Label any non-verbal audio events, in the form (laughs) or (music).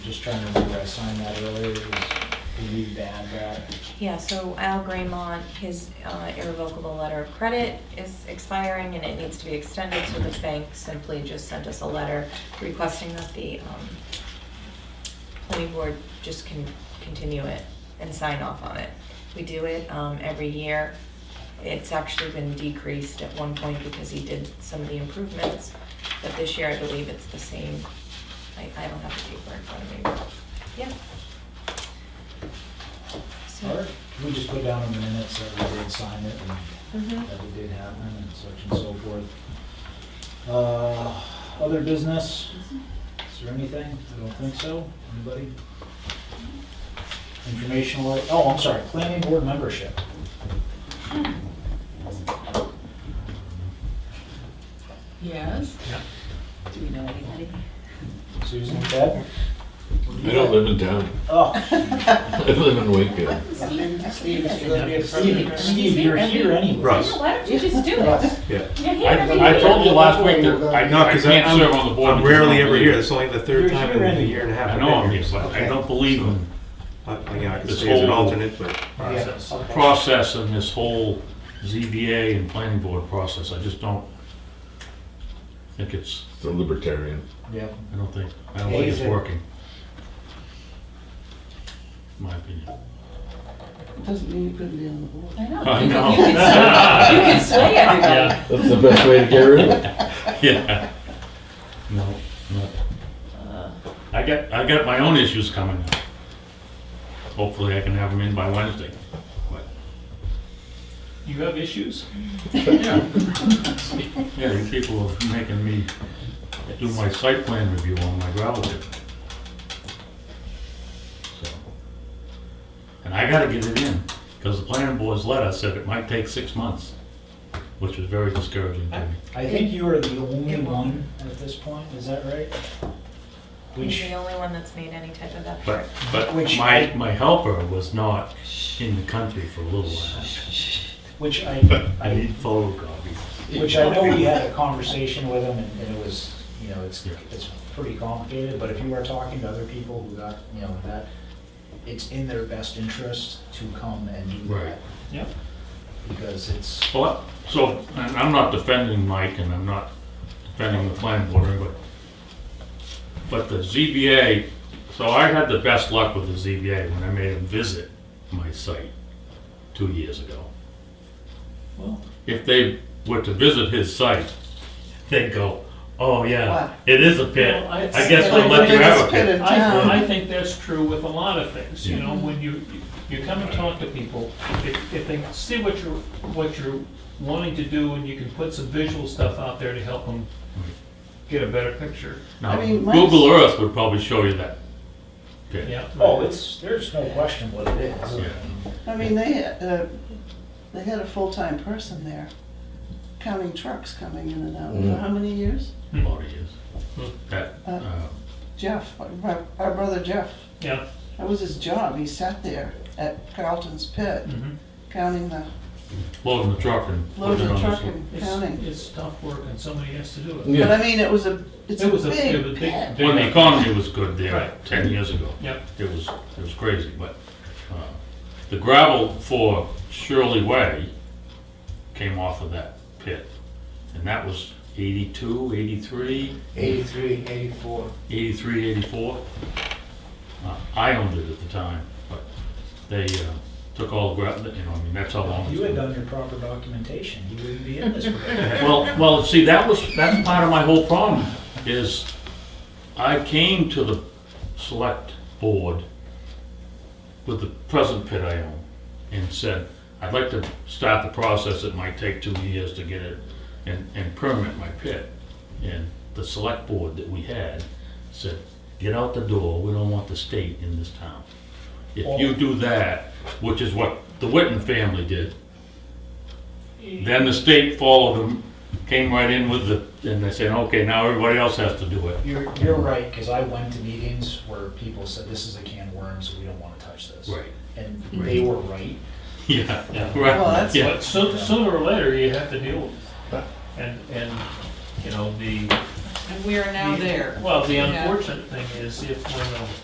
Just trying to remember, I signed that earlier, it was, we need to add that. Yeah, so Al Graymont, his uh, irrevocable letter of credit is expiring and it needs to be extended, so the bank simply just sent us a letter requesting that the um, planning board just can continue it and sign off on it. We do it um, every year. It's actually been decreased at one point because he did some of the improvements, but this year I believe it's the same. I I don't have the paper in front of me. but, Yeah. So- Or can we just put down in the minutes that we did sign it and Mhm. that it did happen and such and so forth? Uh, Other business? Is there anything? I don't think so. Anybody? Informational, oh, I'm sorry, planning board membership. Yes. Yeah. Do we know anybody? Susan, Deb? I don't live in town. Oh, I live in Wakefield. Steve, is gonna be a Steve, permanent. Steve, you're here anyway. Russ. Why don't you just do Russ. I, I told you last week that I, No, I 'cause can't I'm- serve on the board. I'm because I rarely don't ever believe here, it. that's only the You're third time here in a anyway. year and a half. I I've know been I'm here, here, so but I I- don't believe in I- I- yeah, I could This stay as an whole- alternate, but. Yes, the okay. process and this whole ZBA and planning board process. I just don't think it's, The libertarian. Yeah. I don't think, I don't think it's Amazing. working. My opinion. Doesn't mean you couldn't be on the board. I know. I You know. can- You can sway- you can sway everybody. (laughs) Yeah, That's the best way to get rid of it. yeah. No, no. Uh, I got, I got my own issues coming up. Hopefully I can have them in by Wednesday. You have issues? Yeah, Yeah, you people are making me do my site plan review on my gravel pit. So, And I gotta get it in, because the planning board's letter said it might take six months, which was very discouraging to me. I think you are the only It won't. one at this point, is that right? He's Which, the only one that's made any type of effort. But, but Which my, I- my helper was not in the country for a little while. which I, (laughs) I I need photocopies. Which I know (laughs) we had a conversation with him and and it was, you know, it's, it's pretty complicated, but if you are talking to other people who got, you know, that, it's in their best interest to come and do that. Right. Yep. Because it's, Well, so, and I'm not defending Mike and I'm not defending the planning board, but, but the ZBA, so I had the best luck with the ZBA when I made them visit my site two years ago. Well- If they were to visit his site, they'd go, oh Wow. yeah, it is a pit. Well, I it's- guess we'll let you have a pit. I, I think that's true with a lot of things, you Yeah. know, when you, you come and talk to people, if, if they see what you're, what you're wanting to do, and you can put some visual stuff out there to help them get a better picture, Now, I mean, Mike's- Google Earth would probably show you that pit. yeah. oh, it's, there's no question what it is. Yeah. I mean, they, had, uh, they had a full-time person there, counting trucks coming in and out, for how many years? Lot of years. That, Uh, uh, Jeff, my, our brother Jeff, Yeah, that was his job, he sat there at Carlton's Pit, mhm. counting the, loading the truck and. putting loading it the on truck slope. and it's, counting. it's tough work and somebody has to do it. But Yeah. I mean, it was a, it's a It was a, it was big a big, pit. When the big- economy was good there Right. ten years ago, Yep, it was, it was crazy, but, uh, the gravel for Shirley Way came off of that pit. And that was 82, 83, Eighty-three, eighty-four. 83, 84. Uh, I owned it at the time, but they, uh, took all the gravel, you know, I mean, that's how long. If it's you had been. done your proper documentation, you wouldn't be (laughs) in this. predicament. Well, well, see, that was, that's part of my whole problem, is I came to the select board with the present pit I own and said, I'd like to start the process, it might take two years to get it and, and permit my pit. And the select board that we had said, get out the door, we don't want the state in this town. If you do that, which is what the Witten family did, then the state followed them, came right in with the, and they said, okay, now everybody else has to do it. You're, you're right, because I went to meetings where people said, this is a can of worms, we don't want to touch this. Right. And they were right. Yeah, yeah. right. Well, that's yeah. But sooner, sooner or later, you have to deal with it. And, and, you know, the. And we are the- Well, the unfortunate thing is if when the